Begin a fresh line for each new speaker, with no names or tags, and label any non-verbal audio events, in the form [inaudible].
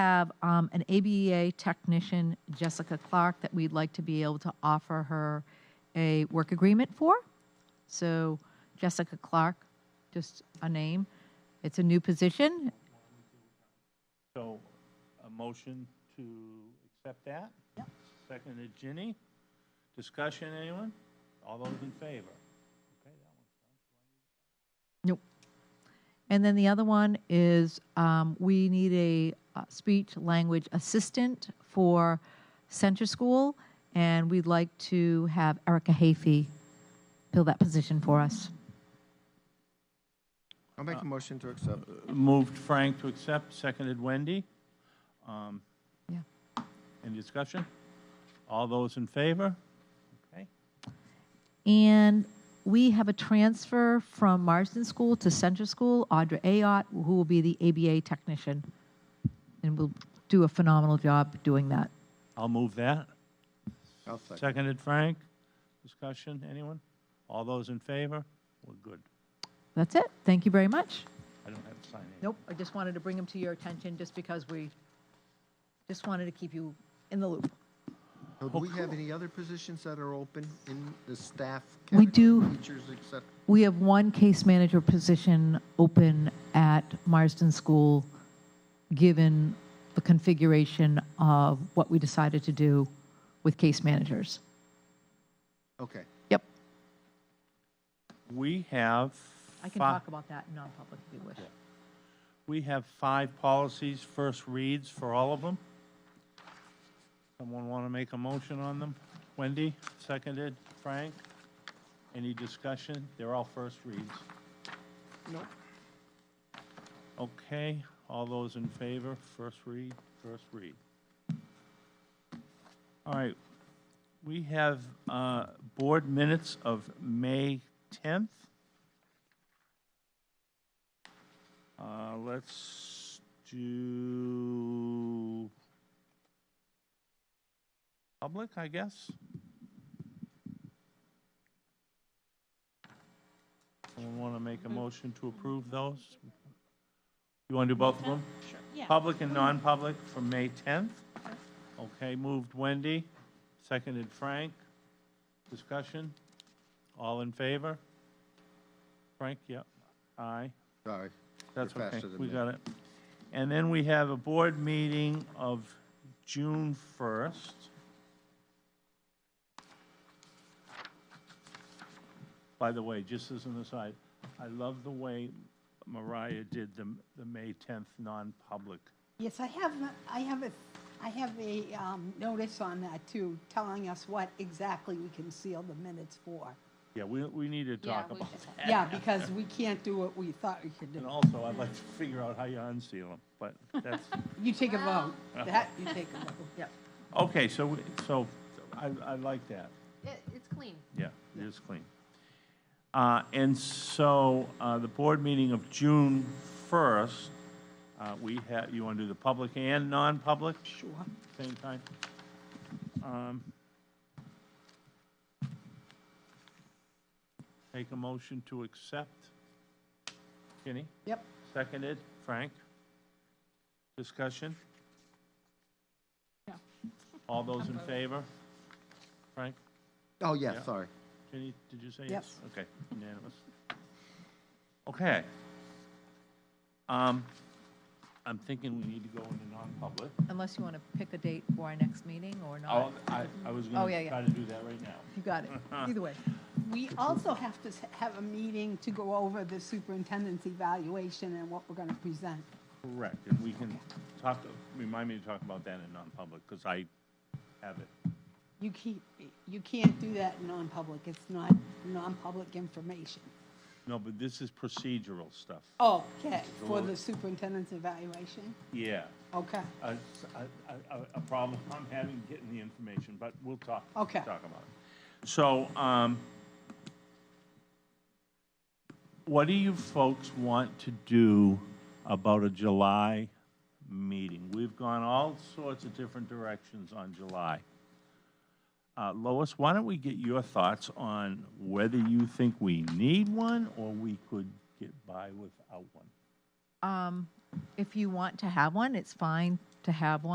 have um, an ABEA technician, Jessica Clark, that we'd like to be able to offer her a work agreement for. So Jessica Clark, just a name. It's a new position.
So a motion to accept that? Yep. Seconded Ginny. Discussion, anyone? All those in favor? Okay, that
Nope. And then the other one is um, we need a uh, speech language assistant for center school, and we'd like to have Erica Hafey fill that position for us.
I'll
Uh,
make a motion to accept. uh,
one. Moved Frank to accept, seconded Wendy. Um,
Yeah.
Any discussion? All those in favor? Okay.
And we have a transfer from Marsden School to Center School, Audra Ayotte, who will be the ABA technician, and will do a phenomenal job doing that.
I'll move that.
I'll second.
Seconded Frank. Discussion, anyone? All those in favor? We're good.
That's it. Thank you very much.
I don't have to sign anything.
Nope, I just wanted to bring them to your attention, just because we, just wanted to keep you in the loop.
So do we
oh,
have any other positions that are open in the staff?
We
category,
do.
Teachers, except,
We have one case manager position open at Marsden School, given the configuration of what we decided to do with case managers.
okay.
Yep.
We have.
I can
fi-
talk about that in non-public if you wish.
We have five policies, first reads for all of them. Someone want to make a motion on them? Wendy, seconded. Frank, any discussion? They're all first reads.
Nope.
Okay, all those in favor, first read, first read. All right, we have uh, board minutes of May 10th. Uh, Let's do public, I guess. Someone want to make a motion to approve those? You want to do both of them? Sure. Public and non-public from May 10th? Okay, moved Wendy, seconded Frank. Discussion? All in favor? Frank, yep, aye.
Sorry.
That's
You're
okay,
faster than
we
me.
got it. And then we have a board meeting of June 1st. By the way, just as an aside, I love the way Mariah did the, the May 10th non-public.
Yes, I have, I have a, I have a um, notice on that too, telling us what exactly we can seal the minutes for.
Yeah, we, we need to
Yeah,
talk
we
about
just-
that.
Yeah, because we can't do what we thought we could
And
do.
also, I'd like to figure out how you unseal them, but
[laughs]
that's,
You take a vote. That, you take a vote. Yep.
okay, so, we- so I, I like that.
It, it's clean.
Yeah, it is clean. Uh, And so, uh, the board meeting of June 1st, uh, we have, you want to do the public and non-public? Sure. Same time? Um, Take a motion to accept. Ginny,
Yep.
seconded. Frank? Discussion?
No.
All those in favor? Frank?
Oh,
Yeah.
yeah, sorry.
Jenny, did you say yes?
Yes.
Okay, unanimous. Okay. Um, I'm thinking we need to go into non-public.
Unless you want to pick a date for our next meeting or
I'll-
not.
I, I was
Oh, yeah,
gonna
yeah.
try to do that right now.
You got it. Either way.
We also have to s- have a meeting to go over the superintendent's evaluation and what we're going to present.
Correct, and we can talk, remind me to talk about that in non-public, because I have it.
You keep, you can't do that in non-public. It's not non-public information.
No, but this is procedural stuff.
Oh.
Okay, for the superintendent's evaluation?
Yeah,
Okay.
a, a- a- a problem I'm having getting the information, but we'll talk.
Okay.
Talk about it. So, um, what do you folks want to do about a July meeting? We've gone all sorts of different directions on July. Uh, Lois, why don't we get your thoughts on whether you think we need one or we could get by without one?
If you want to have one, it's fine. to have one.